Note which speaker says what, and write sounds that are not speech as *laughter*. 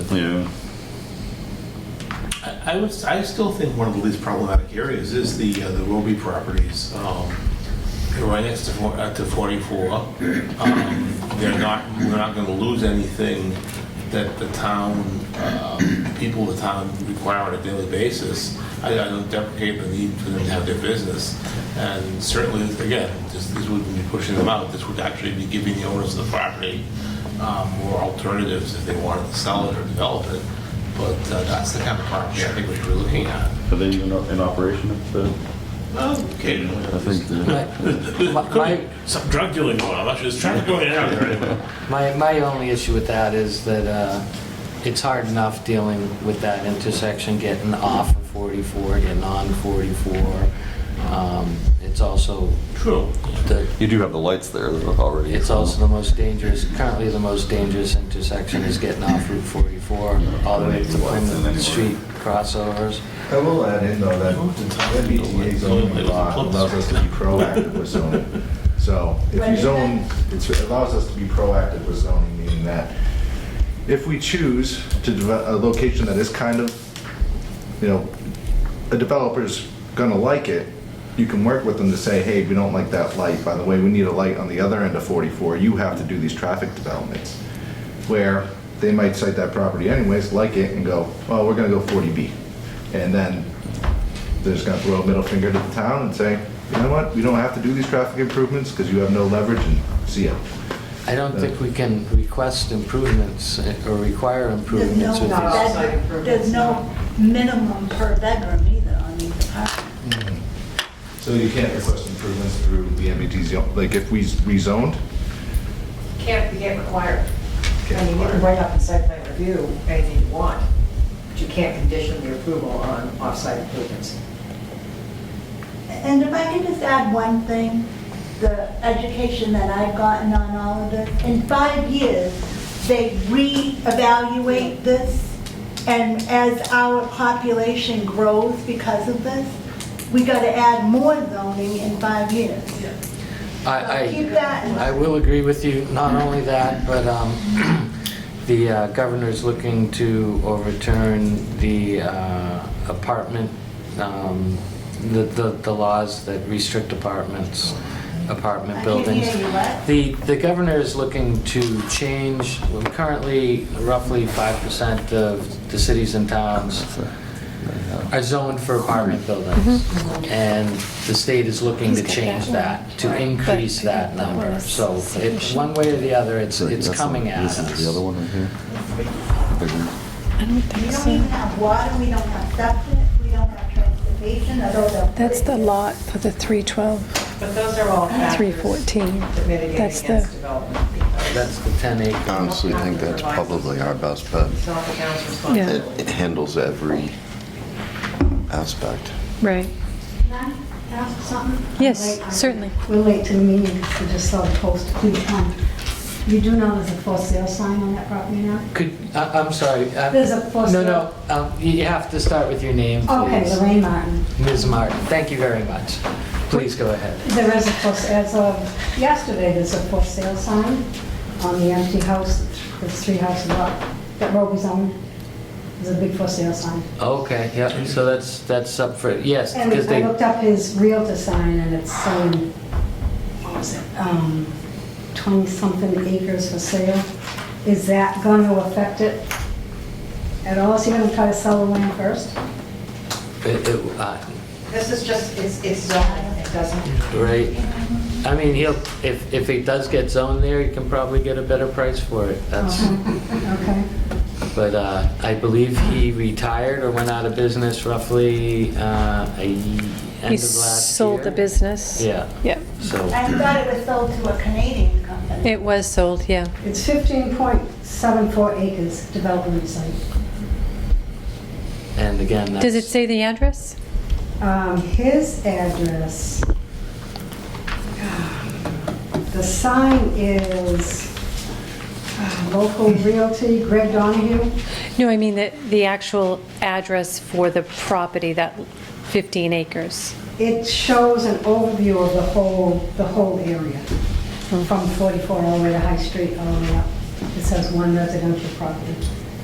Speaker 1: Yeah.
Speaker 2: I I would, I still think one of the least problematic areas is the, uh, the Roby properties. Um, They're right next to, four- uh, to 44. Um, They're not, we're not gonna lose anything that the town, uh, people of the town require on a daily basis. I I don't deprecate the need for them to have their business. And certainly, again, this, this wouldn't be pushing them out. This would actually be giving the owners of the property um, more alternatives if they wanted to sell it or develop it. But uh, that's the kind of property I think we should be looking at.
Speaker 1: Are they even in operation at the?
Speaker 2: Occasionally.
Speaker 1: I think the.
Speaker 3: My,
Speaker 2: Some drug dealing going on, I'm just trying to go in and out there.
Speaker 3: my, my only issue with that is that uh, it's hard enough dealing with that intersection, getting off of 44, getting on 44. Um, It's also
Speaker 2: True.
Speaker 3: the,
Speaker 4: You do have the lights there though, already.
Speaker 3: it's
Speaker 4: so-
Speaker 3: also the most dangerous, currently the most dangerous intersection is getting off Route 44, all the way to Plymouth Street crossovers.
Speaker 5: I will add in though that the MBTA zoning law allows us to be proactive with zoning. So if you zone, it's- it allows us to be proactive with zoning, meaning that if we choose to develop a location that is kind of, you know, a developer's gonna like it, you can work with them to say, hey, we don't like that light, by the way, we need a light on the other end of 44, you have to do these traffic developments. Where they might cite that property anyways, like it, and go, well, we're gonna go 40B. And then they're just gonna throw a middle finger to the town and say, you know what, we don't have to do these traffic improvements, because you have no leverage, and see ya.
Speaker 3: I don't think we can request improvements eh, or require
Speaker 6: There's no
Speaker 3: improvements with these.
Speaker 6: bedroom, there's no minimum per bedroom either on these apartments.
Speaker 5: So you can't request improvements through the MBTA, zone. like if we rezoned,
Speaker 7: Can't, you can't require it.
Speaker 5: Can't
Speaker 7: I mean, you can
Speaker 5: require
Speaker 7: write up in site plan review anything you want, but you can't condition the approval on off-site improvements.
Speaker 6: And if I could just add one thing, the education that I've gotten on all of this, in five years, they reevaluate this, and as our population grows because of this, we gotta add more zoning in five years.
Speaker 3: I,
Speaker 6: Keep that in
Speaker 3: I,
Speaker 6: mind.
Speaker 3: I will agree with you, not only that, but, um, *clears throat* the uh, governor's looking to overturn the uh, apartment, um, the, the, the laws that restrict apartments, apartment
Speaker 6: I can't
Speaker 3: buildings.
Speaker 6: hear you, what?
Speaker 3: The, the governor is looking to change, well, currently roughly five percent of the cities and towns are zoned for apartment buildings. And the state is looking to
Speaker 8: He's got
Speaker 3: change
Speaker 8: that one.
Speaker 3: that, to
Speaker 8: Right.
Speaker 3: increase
Speaker 8: But I
Speaker 3: that
Speaker 8: think that one
Speaker 3: number.
Speaker 8: is
Speaker 3: So it,
Speaker 8: sufficient.
Speaker 3: one way or the other, it's,
Speaker 4: so
Speaker 3: it's
Speaker 4: that's the-
Speaker 3: coming at us.
Speaker 4: This is the other one right here. Big one.
Speaker 8: I don't
Speaker 6: We
Speaker 8: think
Speaker 6: don't even
Speaker 8: so.
Speaker 6: have water, we don't have septic, we don't have transportation, although the-
Speaker 8: That's the lot for the 312,
Speaker 7: But those are all factors
Speaker 8: 314.
Speaker 7: that mitigate
Speaker 8: That's
Speaker 7: against
Speaker 8: the,
Speaker 7: development.
Speaker 3: That's the 10 acre.
Speaker 9: Honestly, think that's probably our best bet.
Speaker 7: It's not the town's
Speaker 9: It
Speaker 7: responsibility.
Speaker 9: it handles every aspect.
Speaker 8: right.
Speaker 10: Can I ask something?
Speaker 8: Yes,
Speaker 10: Like, I-
Speaker 8: certainly.
Speaker 10: We're late to the meeting, so just saw the post. Please come. You do know there's a for sale sign on that property now?
Speaker 3: Could, I, I'm sorry. uh,
Speaker 10: There's a post-
Speaker 3: No, no, um, you you have to start with your name,
Speaker 10: Okay,
Speaker 3: please.
Speaker 10: Lorraine Martin.
Speaker 3: Ms. Martin, thank you very much. Please go ahead.
Speaker 10: There is a for, as of yesterday, there's a for sale sign on the empty house, there's three houses up, that road was on. There's a big for sale sign.
Speaker 3: Okay, yeah, so that's, that's up for, yes,
Speaker 10: And
Speaker 3: because they,
Speaker 10: I looked up his realtor sign and it's saying, what was it, um, 20-something acres for sale. Is that going to affect it at all? Is he going to try to sell the land first?
Speaker 3: it- it, uh,
Speaker 7: This is just, it's, it's zoning, it doesn't,
Speaker 3: Right. I mean, he'll, if, if it does get zoned there, he can probably get a better price for it. That's,
Speaker 10: Okay.
Speaker 3: but uh, I believe he retired or went out of business roughly, uh, a, ye- end
Speaker 8: He
Speaker 3: of last
Speaker 8: sold the
Speaker 3: year.
Speaker 8: business.
Speaker 3: Yeah,
Speaker 8: Yep,
Speaker 3: so,
Speaker 6: I thought it was sold to a Canadian company.
Speaker 8: it was sold, yeah.
Speaker 10: It's 15.74 acres development site.
Speaker 3: and again, that's.
Speaker 8: Does it say the address?
Speaker 10: Um, His address, *sighs* the sign is uh, local realty, Greg Donahue.
Speaker 8: No, I mean the, the actual address for the property, that 15 acres.
Speaker 10: It shows an overview of the whole, the whole area, from 44 all the way to High Street, all the way up. It says one residential property.